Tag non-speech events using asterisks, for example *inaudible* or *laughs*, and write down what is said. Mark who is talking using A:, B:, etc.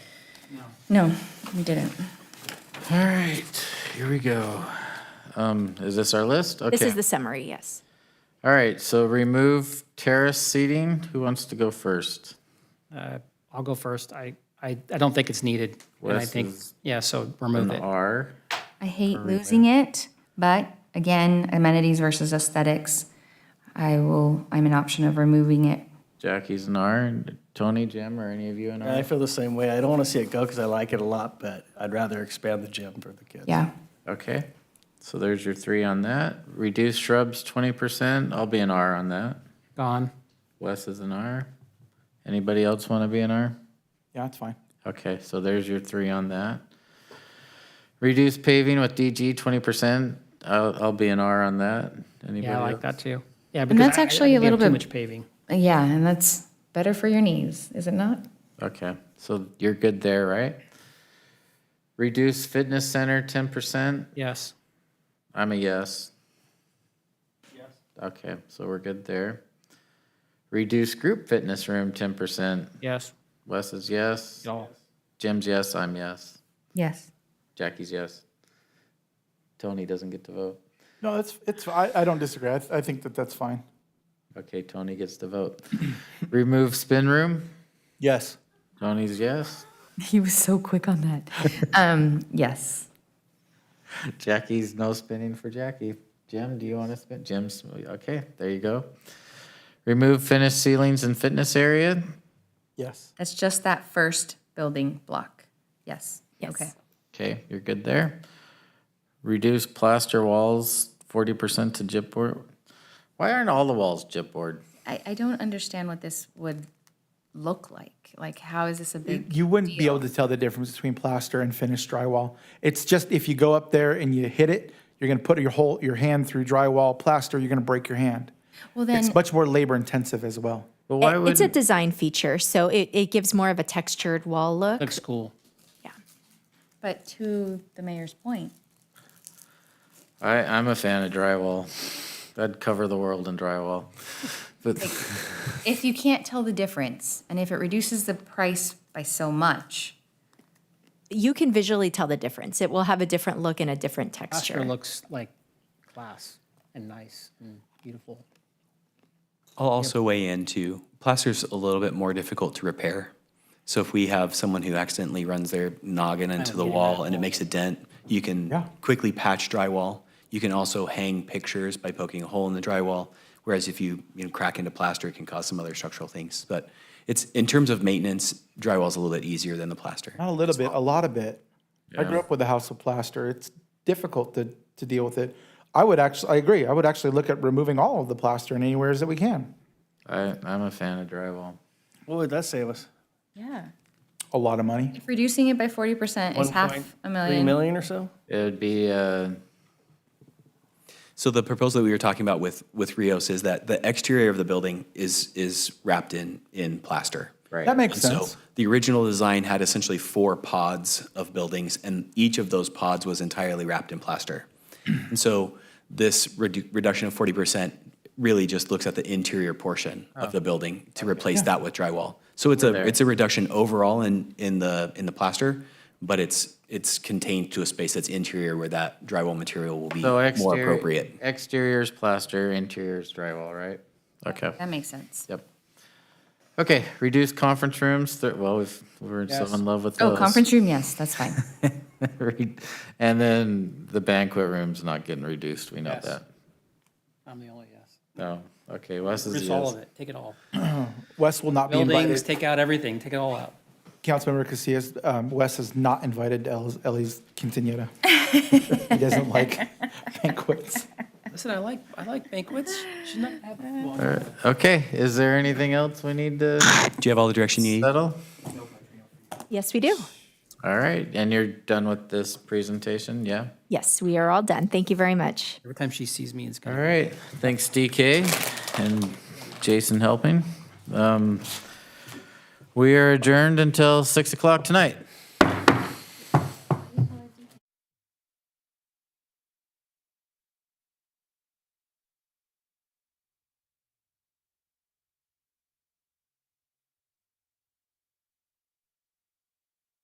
A: No, we didn't.
B: All right, here we go. Um, Is this our list?
C: This
B: Okay.
C: is the summary, yes.
B: All right, so remove terrace seating. Who wants to go first?
D: Uh, I'll go first. I, I, I don't think it's needed. And I
B: Wes
D: think,
B: is
D: yeah, so remove
B: An
D: it.
B: R.
A: I hate losing it, but again, amenities versus aesthetics. I will, I'm an option of removing it.
B: Jackie's an R. and Tony, Jim, or any of you an
E: And I
B: R?
E: feel the same way. I don't want to see it go because I like it a lot, but I'd rather expand the gym for the kids.
A: Yeah.
B: Okay, so there's your three on that. Reduce shrubs 20%. I'll be an R on that.
D: Gone.
B: Wes is an R. Anybody else want to be an R?
F: Yeah, it's fine.
B: Okay, so there's your three on that. Reduce paving with DG 20%. I'll, I'll be an R on that. Anybody
D: Yeah, I like
B: else?
D: that too. Yeah, because
A: And that's
D: I- I
A: actually
D: think
A: a
D: we have
A: little
D: Too
A: bit-
D: much paving.
A: Yeah, and that's better for your knees, is it not?
B: Okay, so you're good there, right? Reduce fitness center ten percent,
D: Yes.
B: I'm a yes. Yes. Okay, so we're good there. Reduce group fitness room ten percent,
D: Yes.
B: Wes is yes,
D: Y'all.
B: Jim's yes, I'm yes,
A: Yes.
B: Jackie's yes. Tony doesn't get to vote.
F: No, it's, it's, I, I don't disagree. I, th- I think that that's fine.
B: Okay, Tony gets to vote. Remove spin room,
E: Yes.
B: Tony's yes,
A: He was *laughs* so quick on that. Um, yes.
B: Jackie's no spinning for Jackie. Jim, do you want to spin? Jim's okay. There you go. Remove finished ceilings and fitness area.
F: Yes.
A: That's just that first building block. Yes.
C: Yes.
A: Okay.
B: Okay, you're good there. Reduce plaster walls forty percent to gypboard. Why aren't all the walls gypboard?
A: I, I don't understand what this would look like. Like, how is this a big?
F: You wouldn't be able to tell the difference between plaster and finished drywall. It's just if you go up there and you hit it, you're gonna put your whole, your hand through drywall. Plaster, you're gonna break your hand.
A: Well, then,
F: It's much more labor intensive as well.
B: But why
C: It-
B: would
C: It's a design feature, so it, it gives more of a textured wall look.
D: Looks cool.
C: Yeah.
A: but to the mayor's point,
B: I? I'm a fan of drywall. I'd cover the world in drywall. *laughs* But
A: if you can't tell the difference and if it reduces the price by so much,
C: You can visually tell the difference. It will have a different look and a different
D: Astra
C: texture.
D: looks like class and nice and beautiful.
G: I'll also weigh in too. Plaster's a little bit more difficult to repair. So if we have someone who accidentally runs their noggin into the wall and it makes a dent, you
F: Yeah.
G: can quickly patch drywall. You can also hang pictures by poking a hole in the drywall. Whereas if you, you know, crack into plaster, it can cause some other structural things. But it's, in terms of maintenance, drywall's a little bit easier than the plaster.
F: Not a little bit, a lot of it. I grew up with a house of plaster. It's difficult to, to deal with it. I would actually, I agree. I would actually look at removing all of the plaster in anywheres that we can.
B: I, I'm a fan of drywall.
E: What would that save us?
A: yeah.
F: A lot of money.
A: If reducing it by 40% is half a
E: Three
A: million.
E: million or so?
B: It would be uh,
G: So the proposal that we were talking about with, with Rios is that the exterior of the building is, is wrapped in, in plaster. Right.
F: That makes
G: And so
F: sense.
G: the original design had essentially four pods of buildings, and each of those pods was entirely wrapped in plaster. and so this redu- reduction of 40% really just looks at the interior portion
F: Oh.
G: of the building to replace that with drywall. So it's a it's a reduction overall in in the in the plaster, but it's it's contained to a space that's interior where that drywall material will be
B: so
G: more
B: exterior.
G: appropriate.
B: Exterior's plaster, interior's drywall, right? Okay.
A: That makes sense.
B: Yep. Okay, reduce conference rooms, thir- well, we've, we're so in love with
A: Oh,
B: those.
A: conference room, yes, that's fine.
B: *laughs* Re- And then the banquet room's not getting reduced, we know that.
D: I'm the only yes.
B: No, okay, Wes is
D: Just all of
B: yes.
D: it. Take it all.
F: Wes will not be
D: Buildings,
F: invited.
D: take out everything. Take it all out.
F: Councilmember Casillas, um, Wes is not invited to Ellie's- Ellie's quinceanera. He doesn't like banquets.
D: Listen, I like, I like banquets. She's not having one.
B: Okay, is there anything else we need to
G: Do you have all the direction you need?
B: settle?
C: Yes, we do.
B: All right, and you're done with this presentation, yeah?
C: Yes, we are all done. Thank you very much.
D: Every time she sees me, it's
B: All
D: gonna.
B: right, thanks DK and Jason helping. Um, We are adjourned until 6 o'clock tonight.